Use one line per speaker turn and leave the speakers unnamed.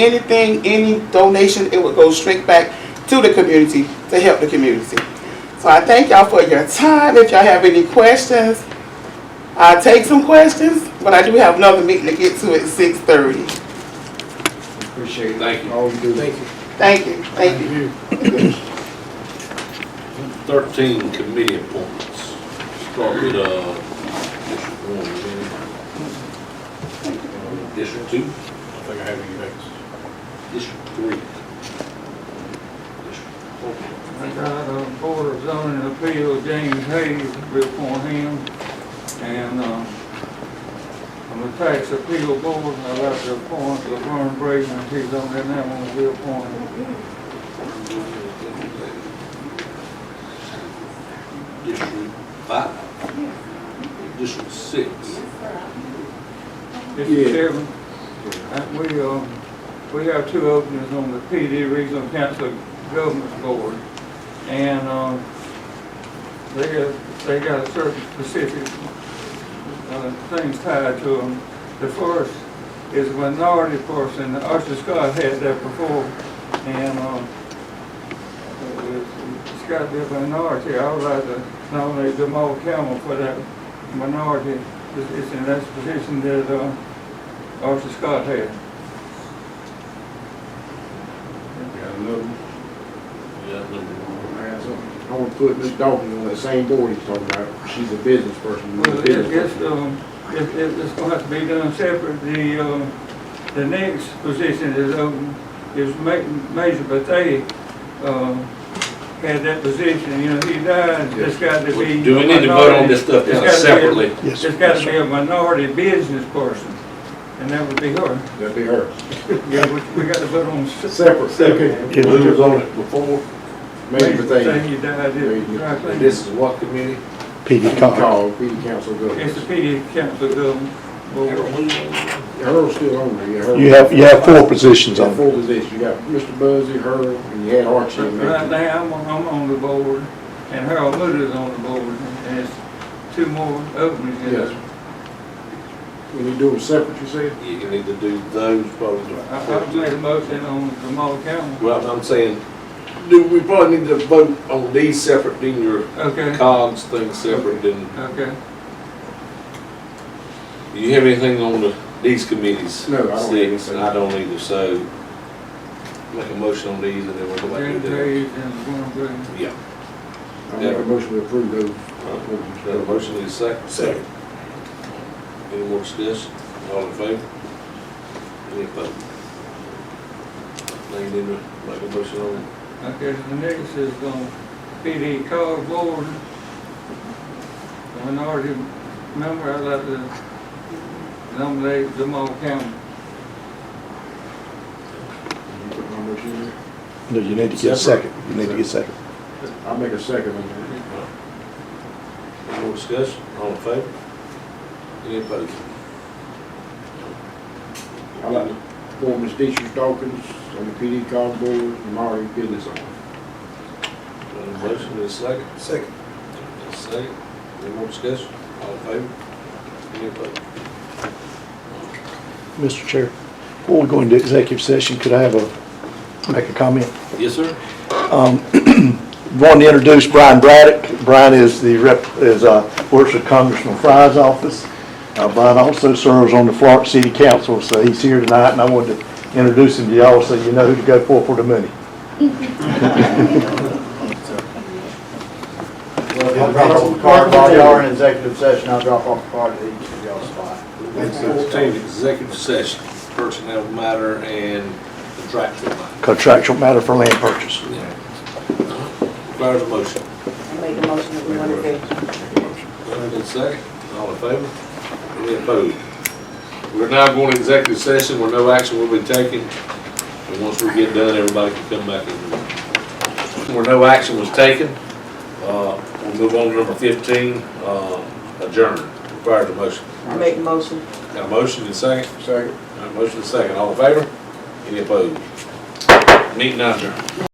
anything, any donation, it would go straight back to the community to help the community. So I thank y'all for your time. If y'all have any questions, I'll take some questions, but I do have another meeting to get to at six thirty.
Appreciate
Thank you.
all you do.
Thank you.
Thank you, thank you.
Thirteen committee appointments. Start with, uh, District One, is it? District Two,
I think I have any next.
District Three. District Four.
I got a Uh, Board of Zoning Appeal, James Hayes, before him, and, um, on the Tax Appeal Board, I'd like to appoint Laverne Braden, he's on there now, I'm gonna be appointed.
District Five. District Six.
Mr.
Yeah.
Chairman, uh, we, um, we have two openings on the PD Regional Council Government Board, and, um, they have, they got certain specific, uh, things tied to them. The first is a minority person, Usher Scott had that before, and, um, it's got to be a minority, I would like to nominate Jamal Campbell for that minority, it's, it's in that position that, uh, Arthur Scott had.
Got another one.
We got number one.
I got something. I want to put Miss Dalton on that same board he's talking about. She's a business person.
Well, it- it's, um, it, it- it's gonna have to be done separate, the, um, the next position is, um, is Ma- Major Bethea, um, had that position, you know, he died, it's got to be.
Do we need to vote on this stuff
It's gotta be a-
separately?
Yes.
It's got to be a minority business person, and that would be her,
That'd be her.
yeah, we, we got to vote on. s-
Separate. Separate.
Yeah.
Who was on it before? Maybe but they.
Bethea died, it- right there.
And this is what committee?
PD
Called PD Council
It's the
Government.
PD Council, um, board.
Harold's still on there. yeah, Harold.
You have, you have four positions
Got
on.
four positions. You got Mr. Buzzy, Harold, and you had Archie. in
Right
there.
now, I'm, on- I'm on the board, and Harold Moody's on the board, and it's two more openings. in there.
Yes. When you do them separate, you said?
You can either do those, probably.
I, I've made a motion on Jamal Campbell.
Well, I'm saying, do, we probably need to vote on these separate, then your
Okay,
COGS thing separate, and
okay.
do you have anything on the, these committees?
No, I don't have
Six,
anything.
and I don't either, so make a motion on these, and then we'll go back to
James
the.
Hayes and Warren Green.
Yeah.
I make a motion to approve those.
Got Uh, a motion, need a second? Second. Any more discussion? All in favor? Any opposed? Lane, then make a motion on
Okay, the next is, um, PD Call Board. The minority member, I'd like to nominate Jamal Campbell.
You put my motion in there?
No, you need to get a second. You need to get a second.
I'll make a second on that.
Any more discussion? All in favor? Any opposed?
I like to form Ms. Deisha Dawkins on the PD call board, and Mari Business owner.
Got a motion, need a second?
Second.
Got a Second. Any more discussion? All in favor? Any opposed?
Mr. Chair, before we go into executive session, could I have a, make a comment?
Yes, sir.
Want to introduce Brian Braddock. Brian is the rep, is, uh, works at Congressman Fry's office. Uh, Brian also serves on the Florence City Council, so he's here tonight, and I wanted to introduce him to y'all so you know who to go for for the money.
Well, I'll drop off the card, while y'all are in executive session, I'll drop off the card at each of y'all's spot.
Fourteen, executive session, personnel matter and contractual matter.
Contractual matter for land purchase.
Requires a motion.
I make the motion that we want to do.
Moved and second, all in favor? Any opposed? We're now going to executive session where no action will be taken, and once we get done, everybody can come back in. Where no action was taken, uh, we'll move on to number fifteen, uh, adjourn, requires a motion.
I make the motion.
Got a motion and second?
Second.
Got a motion and second, all in favor? Any opposed? Meeting adjourned.